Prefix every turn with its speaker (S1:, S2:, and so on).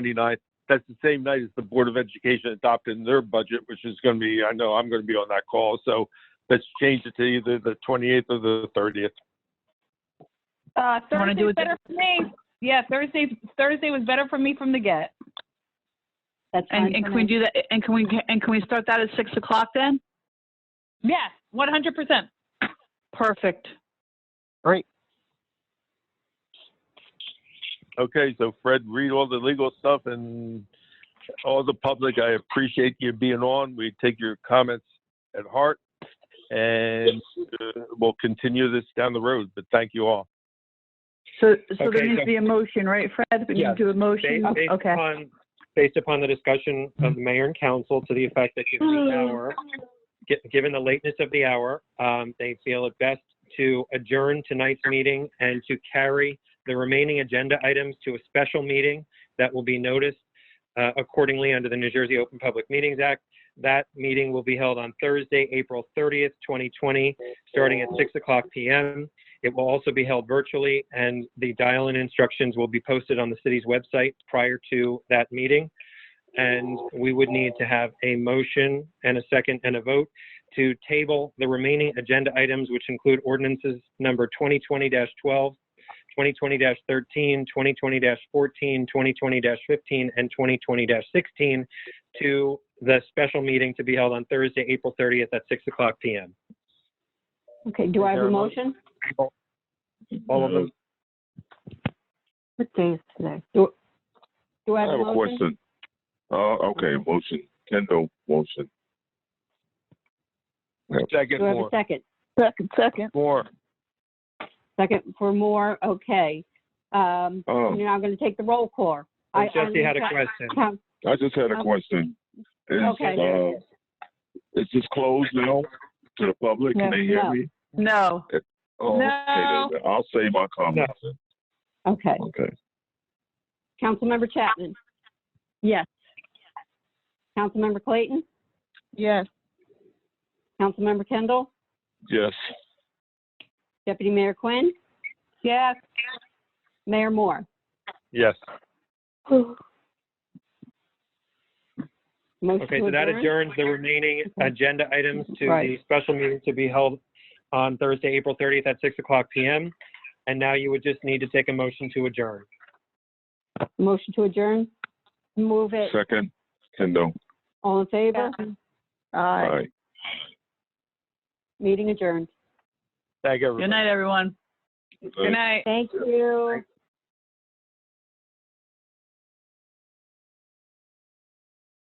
S1: 29th. That's the same night as the Board of Education adopted their budget, which is going to be, I know I'm going to be on that call. So let's change it to either the 28th or the 30th.
S2: Uh,
S3: Wanna do
S2: Thursday's
S3: it the-
S2: better for me. Yeah, Thursday, Thursday was better for me from the get.
S4: That's fine
S3: And, and
S4: for
S3: can we
S4: me.
S3: do that, and can we, and can we start that at 6 o'clock then?
S2: Yeah, one hundred percent.
S3: Perfect.
S1: Okay, so Fred, read all the legal stuff and all the public, I appreciate you being on. We take your comments at heart and uh, we'll continue this down the road, but thank you all.
S5: So, so there
S6: Okay,
S5: needs
S6: so-
S5: to be a motion, right, Fred? We
S6: Yes.
S5: need to do a motion?
S6: Based, based
S5: Okay.
S6: upon, based upon the discussion of the mayor and council to the effect that given
S5: Hmm.
S6: the hour, gi- given the lateness of the hour, um, they feel it best to adjourn tonight's meeting and to carry the remaining agenda items to a special meeting that will be noticed uh, accordingly under the New Jersey Open Public Meetings Act. That meeting will be held on Thursday, April 30th, 2020, starting at 6 o'clock PM. It will also be held virtually, and the dial-in instructions will be posted on the city's website prior to that meeting. And we would need to have a motion and a second and a vote to table the remaining agenda items, which include ordinances number 2020-12, 2020-13, 2020-14, 2020-15, and 2020-16 to the special meeting to be held on Thursday, April 30th at 6 o'clock PM.
S4: Okay, do I
S1: Is
S4: have
S1: there
S4: a
S1: a motion?
S4: motion?
S1: All of them.
S4: What day is today? Do do I
S7: I
S4: have
S6: Oh,
S7: have
S4: a
S7: a
S4: motion?
S7: question. Uh, okay, motion, Kendall, motion.
S1: Second
S4: Do I have a
S1: more,
S4: second?
S5: Second, second.
S1: more.
S4: Second for more. okay. Um,
S7: Oh,
S4: You're not going to take the roll call. I-
S6: And Oh, Jesse had a
S4: Eileen,
S6: question.
S4: count-
S7: I just had a question. Is,
S4: Okay.
S7: uh, is this closed now to the public? Can they hear
S4: No.
S7: me?
S3: No.
S7: Oh,
S2: No.
S7: okay, then. I'll say my comments. then.
S4: Okay,
S7: Okay.
S4: Councilmember Chapman?
S5: Yes.
S4: Councilmember Clayton?
S5: Yes.
S4: Councilmember Kendall?
S7: Yes.
S4: Deputy Mayor Quinn?
S2: Yes.
S4: Mayor Moore?
S1: Yes.
S4: Motion
S6: Okay,
S4: to
S6: so that
S4: adjourn?
S6: adjourns the remaining
S4: Okay.
S6: agenda items to the
S4: Right.
S6: special meeting to be held on Thursday, April 30th at 6 o'clock PM. And now you would just need to take a motion to adjourn.
S4: Motion to adjourn? Move it.
S7: Second, Kendall.
S4: All in favor?
S5: Aye.
S7: Aye.
S4: Meeting adjourned.
S1: Thank everyone.
S3: Good night, everyone.
S7: Aye.
S3: night.
S4: Thank you.